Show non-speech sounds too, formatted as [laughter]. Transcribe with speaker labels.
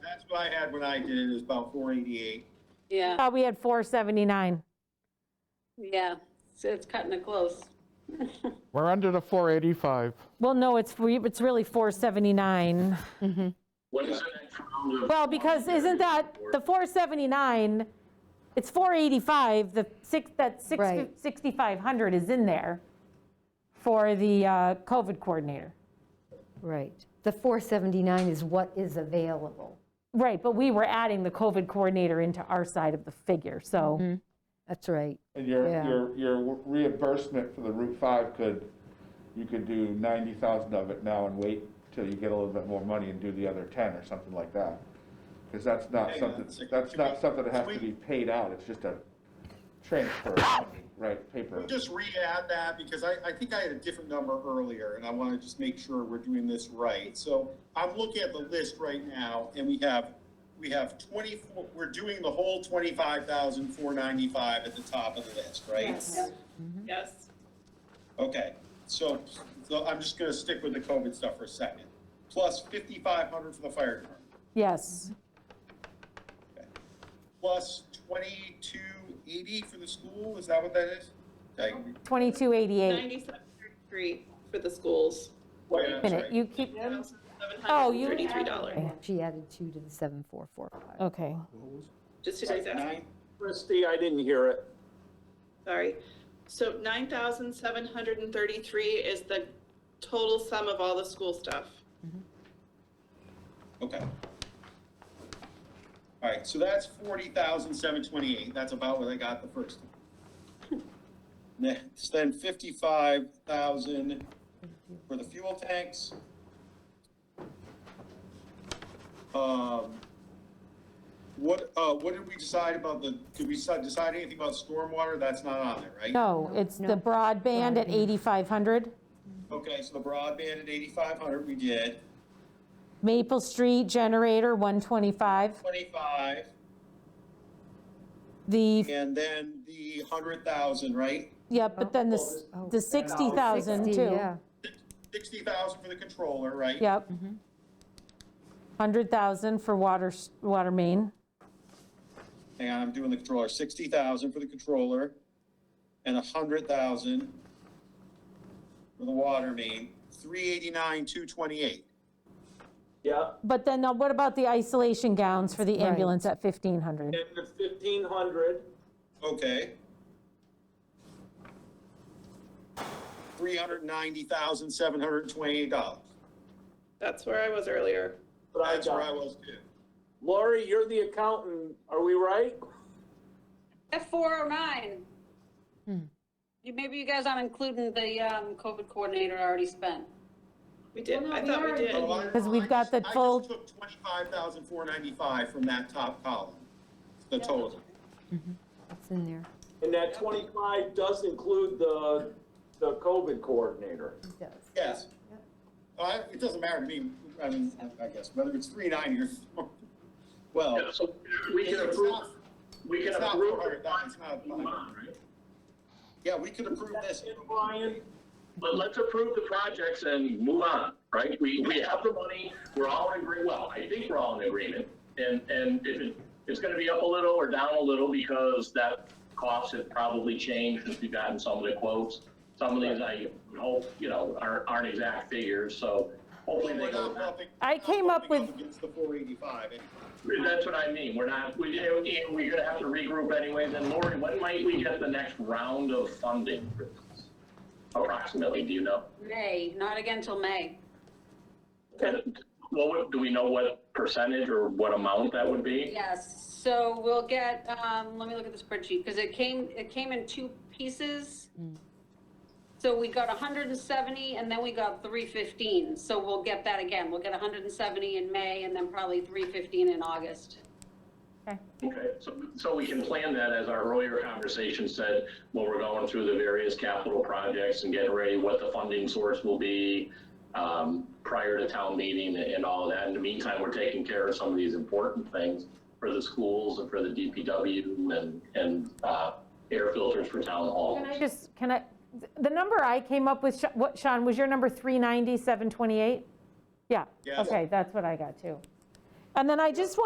Speaker 1: what I had when I did it, it was about four eighty-eight.
Speaker 2: Yeah,
Speaker 3: Thought we had 479.
Speaker 2: yeah, so it's cutting it close.
Speaker 4: We're under the 485.
Speaker 3: Well, no, it's, re- it's really 479.
Speaker 5: What is the next round of?
Speaker 3: Well, because isn't that, the 479, it's 485, the six, that six fif-
Speaker 6: Right.
Speaker 3: 6,500 is in there for the uh, COVID coordinator.
Speaker 6: Right. The 479 is what is available
Speaker 3: Right, but we were adding the COVID coordinator into our side of the figure, so,
Speaker 6: That's right.
Speaker 4: And your,
Speaker 6: Yeah.
Speaker 4: your, your reimbursement for the Route 5 could, you could do 90,000 of it now and wait till you get a little bit more money and do the other 10 or something like that. Because that's not
Speaker 1: Hang on a
Speaker 4: something,
Speaker 1: second.
Speaker 4: that's
Speaker 1: Should
Speaker 4: not
Speaker 1: we-
Speaker 4: something that has
Speaker 1: should
Speaker 4: to
Speaker 1: we-
Speaker 4: be paid out, it's just a transfer, of money, right, paper.
Speaker 1: Just re-add that because I, I think I had a different number earlier and I want to just make sure we're doing this right. So I'm looking at the list right now and we have, we have twenty-four, we're doing the whole twenty-five thousand four ninety-five at the top of the list, right?
Speaker 2: Yes.
Speaker 1: Okay, so, so I'm just gonna stick with the COVID stuff for a second. Plus fifty-five hundred for the fire department,
Speaker 3: yes.
Speaker 1: plus twenty-two eighty for the school, is that what that is? Did I-
Speaker 3: 2288.
Speaker 2: Ninety-seven thirty-three for the schools.
Speaker 1: wait, I'm
Speaker 3: Minute,
Speaker 1: sorry.
Speaker 3: You keep, Oh, you-
Speaker 2: $733, dollars.
Speaker 6: She added two to the 7445.
Speaker 3: okay.
Speaker 2: just to digest,
Speaker 1: Nine-
Speaker 5: Christie, I didn't hear it.
Speaker 2: sorry. So nine thousand seven hundred and thirty-three is the total sum of all the school stuff.
Speaker 1: Okay. All right, so that's forty thousand seven twenty-eight, that's about what I got the first time. Next, then fifty-five thousand for the fuel tanks. Um, what, uh, what did we decide about the, did we decide decide anything about stormwater? That's not on there, right?
Speaker 3: No, it's the broadband at 8,500.
Speaker 1: Okay, so the broadband at eighty-five hundred, we did,
Speaker 3: Maple Street generator, 125.
Speaker 1: twenty-five,
Speaker 3: The
Speaker 1: and then the hundred thousand, right?
Speaker 3: Yeah, but then the, s-
Speaker 6: Oh,
Speaker 3: the 60,000 too.
Speaker 6: Yeah,
Speaker 1: sixty thousand for the controller, right?
Speaker 3: Yep. 100,000 for water, s- water main,
Speaker 1: Hang on, I'm doing the controller, sixty thousand for the controller, and a hundred thousand for the water main, three eighty-nine, two twenty-eight.
Speaker 5: Yeah,
Speaker 3: but then uh, what about the isolation gowns for the
Speaker 6: Right.
Speaker 3: ambulance at 1,500?
Speaker 5: and the fifteen hundred,
Speaker 1: Okay. Three hundred ninety thousand, seven hundred twenty-eight dollars.
Speaker 2: That's where I was earlier.
Speaker 5: but I
Speaker 1: That's where I
Speaker 5: got,
Speaker 1: was too.
Speaker 5: Lori, you're the accountant, are we right?
Speaker 7: At 409. You- Maybe you guys aren't including the um, COVID coordinator already spent.
Speaker 2: We did, I thought we did.
Speaker 1: Oh, I-
Speaker 3: 'Cause we've
Speaker 1: I just-
Speaker 3: got the full-
Speaker 1: I just took twenty-five thousand, four ninety-five from that top column, the total.
Speaker 6: it's in there.
Speaker 5: And that twenty-five does include the, the COVID coordinator.
Speaker 6: It does.
Speaker 1: Yes. Uh, it doesn't matter to me, I mean, I guess, whether it's three ninety or, [laughs] well,
Speaker 5: So we
Speaker 1: can approve-
Speaker 5: we
Speaker 1: it's not four hundred thousand, it's not five.
Speaker 5: right?
Speaker 1: Yeah, we could approve this.
Speaker 5: Brian,
Speaker 8: But let's approve the projects and move on, right? We, we have the money, we're all in agree, well, I think we're all in agreement. And, and if it, it's gonna be up a little or down a little because that cost has probably changed since we've gotten some of the quotes. Some of these I would hope, you know, aren't, aren't exact figures, so hopefully they
Speaker 1: We're
Speaker 8: go
Speaker 1: not
Speaker 8: back.
Speaker 1: bumping-
Speaker 3: I came up
Speaker 1: bumping
Speaker 3: with-
Speaker 1: Against the four eighty-five.
Speaker 8: That's what I mean, we're not, we, eh, we're gonna have to regroup anyways. And Lori, when might we get the next round of funding? for this? Approximately, do you know?
Speaker 7: May, not again till May.
Speaker 8: And What, would- do we know what percentage or what amount that would be?
Speaker 7: Yes, so we'll get, um, let me look at the spreadsheet, because it came, it came in two pieces. So we got 170 and then we got 315, so we'll get that again. We'll get 170 in May and then probably 315 in August.
Speaker 8: Okay, so, so we can plan that, as our earlier conversation said, when we're going through the various capital projects and getting ready, what the funding source will be, um, prior to town meeting and all that. In the meantime, we're taking care of some of these important things for the schools and for the DPW and, and, uh, air filters for town halls.
Speaker 3: Can I just, can I, the number I came up with, Sha- what, Sean, was your number 390, 728? Yeah,
Speaker 1: Yes.
Speaker 3: okay, that's what I got too. And then I just